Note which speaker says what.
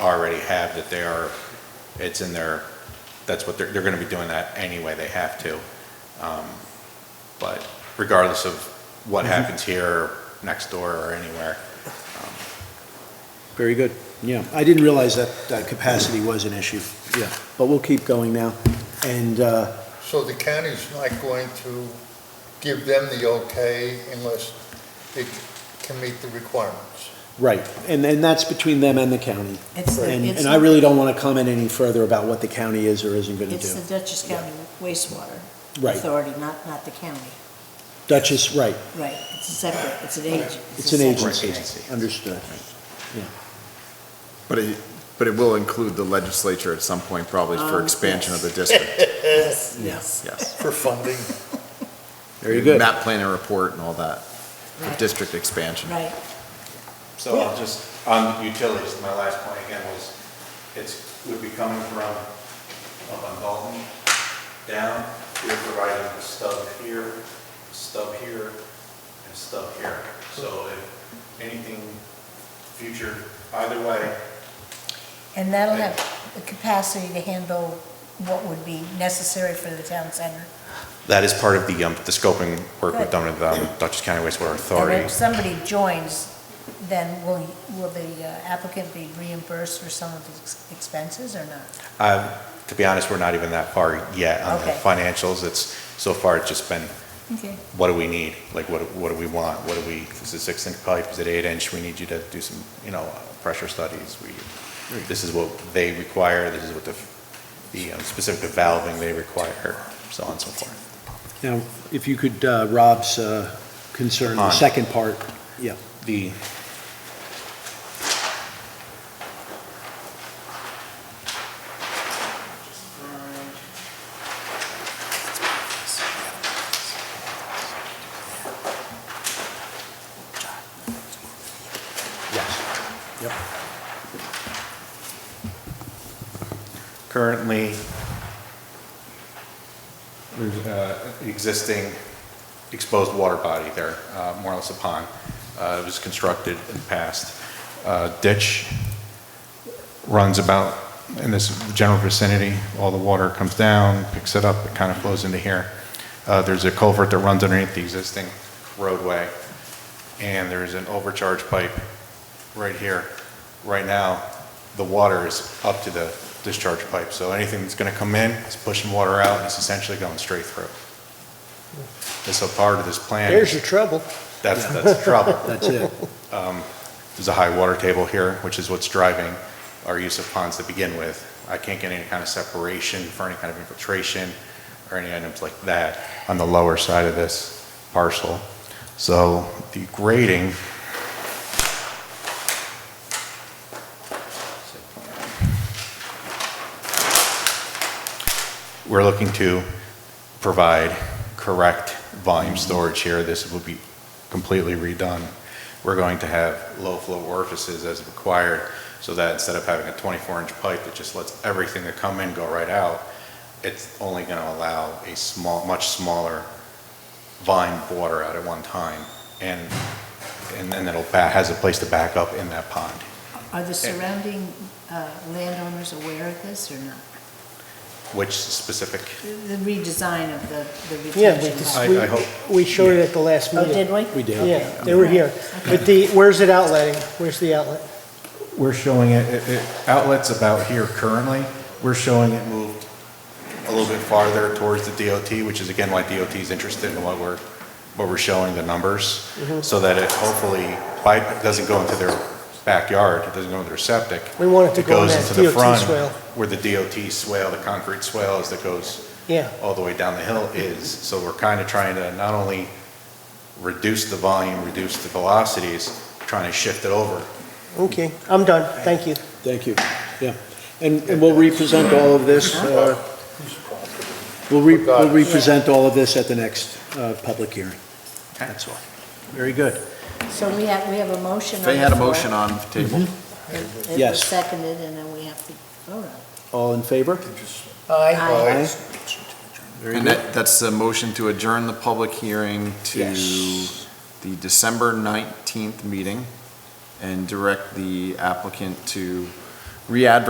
Speaker 1: already have that they are, it's in their, that's what they're, they're gonna be doing that anyway, they have to. Um, But regardless of what happens here, or next door, or anywhere,
Speaker 2: Very good, yeah. I didn't realize that, that capacity was an issue, yeah. But we'll keep going now. And, uh,
Speaker 3: So the county's not going to give them the okay unless it can meet the requirements?
Speaker 2: right, and, and that's between them and the county.
Speaker 4: It's,
Speaker 2: And,
Speaker 4: it's,
Speaker 2: and I really don't want to comment any further about what the county is or isn't going to
Speaker 4: it's
Speaker 2: do.
Speaker 4: the Dutchess County wastewater
Speaker 2: Right,
Speaker 4: authority, not, not the county.
Speaker 2: Duchess, right,
Speaker 4: Right, it's a separate, it's an agency.
Speaker 2: it's an agency,
Speaker 1: agency.
Speaker 2: understood.
Speaker 5: But it, but it will include the legislature at some point, probably for
Speaker 4: Um,
Speaker 5: expansion of the
Speaker 4: yes.
Speaker 5: district,
Speaker 4: Yes,
Speaker 2: Yeah.
Speaker 4: yes.
Speaker 5: yes.
Speaker 3: For funding?
Speaker 2: Very good.
Speaker 5: Map plan and report and all that, for
Speaker 4: Right.
Speaker 5: district expansion.
Speaker 4: Right,
Speaker 1: So I'll just, on utilities, my last point again was, it's, would be coming from up on Dalton, down, we're providing a stub here, stub here, and stub here. So if anything future, either way,
Speaker 4: and that'll have the capacity to handle what would be necessary for the town center.
Speaker 1: That is part of the, um, the scoping work
Speaker 4: Good.
Speaker 1: with Dun- um, Dutchess County Wastewater
Speaker 4: And
Speaker 1: Authority.
Speaker 4: if somebody joins, then will, will the uh, applicant be reimbursed for some of the ex- expenses or not?
Speaker 1: Um, to be honest, we're not even that far yet on the
Speaker 4: Okay.
Speaker 1: financials. It's, so far, it's just been,
Speaker 4: Okay.
Speaker 1: what do we need? Like, what, what do we want? What do we, is it six inch pipe? Is it eight inch? We need you to do some, you know, uh, pressure studies. We, this is what they require, this is what the, the um, specific valving they require, so on and so forth.
Speaker 2: Now, if you could, uh, Rob's uh, concern, the
Speaker 1: On.
Speaker 2: second part, yeah.
Speaker 1: The,
Speaker 2: Yes. Yep.
Speaker 1: currently, there's uh, an existing exposed water body there, uh, more or less a pond. Uh, It was constructed in the past. Uh, Ditch runs about in this general vicinity. All the water comes down, picks it up, it kind of flows into here. Uh, There's a culvert that runs underneath the existing roadway, and there's an overcharge pipe right here. Right now, the water is up to the discharge pipe, so anything that's going to come in is pushing water out, and it's essentially going straight through. And so part of this plan,
Speaker 2: There's your trouble.
Speaker 1: that's, that's the trouble.
Speaker 2: That's it.
Speaker 1: There's a high water table here, which is what's driving our use of ponds to begin with. I can't get any kind of separation for any kind of infiltration or any items like that on the lower side of this parcel. So the grading. We're looking to provide correct volume storage here. This will be completely redone. We're going to have low-flow orifices as required, so that instead of having a 24-inch pipe that just lets everything that come in go right out, it's only going to allow a small, much smaller volume of water out at one time, and, and then it'll, ba- has a place to back up in that pond.
Speaker 4: Are the surrounding uh, landowners aware of this or not?
Speaker 1: Which specific,
Speaker 4: The redesign of the, the
Speaker 6: Yeah, we
Speaker 4: retention
Speaker 6: just,
Speaker 1: I-
Speaker 4: pond.
Speaker 6: we,
Speaker 1: I hope-
Speaker 6: we showed it at the last
Speaker 4: Oh,
Speaker 6: meeting.
Speaker 4: did we?
Speaker 2: We did.
Speaker 6: Yeah, they were here. But the, where's it outletting? Where's the outlet?
Speaker 1: we're showing it, it- it, outlets about here currently, we're showing it moved a little bit farther towards the DOT, which is again why DOT is interested in what we're, what we're showing, the numbers,
Speaker 6: Mm-hmm.
Speaker 1: so that it hopefully, pipe doesn't go into their backyard, it doesn't go into their septic.
Speaker 6: We want it to go in
Speaker 1: goes
Speaker 6: that
Speaker 1: into the
Speaker 6: DOT
Speaker 1: front
Speaker 6: swale.
Speaker 1: Where the DOT swale, the concrete swales that goes
Speaker 6: Yeah,
Speaker 1: all the way down the hill is. So we're kind of trying to not only reduce the volume, reduce the velocities, trying to shift it over
Speaker 6: okay, I'm done, thank you.
Speaker 2: Thank you, yeah. And, and we'll represent all of this, uh, we'll re, we'll represent all of this at the next, uh, public hearing. That's all. Very good.
Speaker 4: So we have, we have a motion on the
Speaker 5: They had a
Speaker 4: floor.
Speaker 5: motion on the table.
Speaker 4: It- It was
Speaker 2: Yes.
Speaker 4: seconded, and then we have to vote on it.
Speaker 2: All in favor?
Speaker 4: Aye.
Speaker 2: Aye. Very
Speaker 5: And
Speaker 2: good.
Speaker 5: that, that's a motion to adjourn the public hearing to
Speaker 2: Yes.
Speaker 5: the December 19th meeting and direct the applicant to re-advertise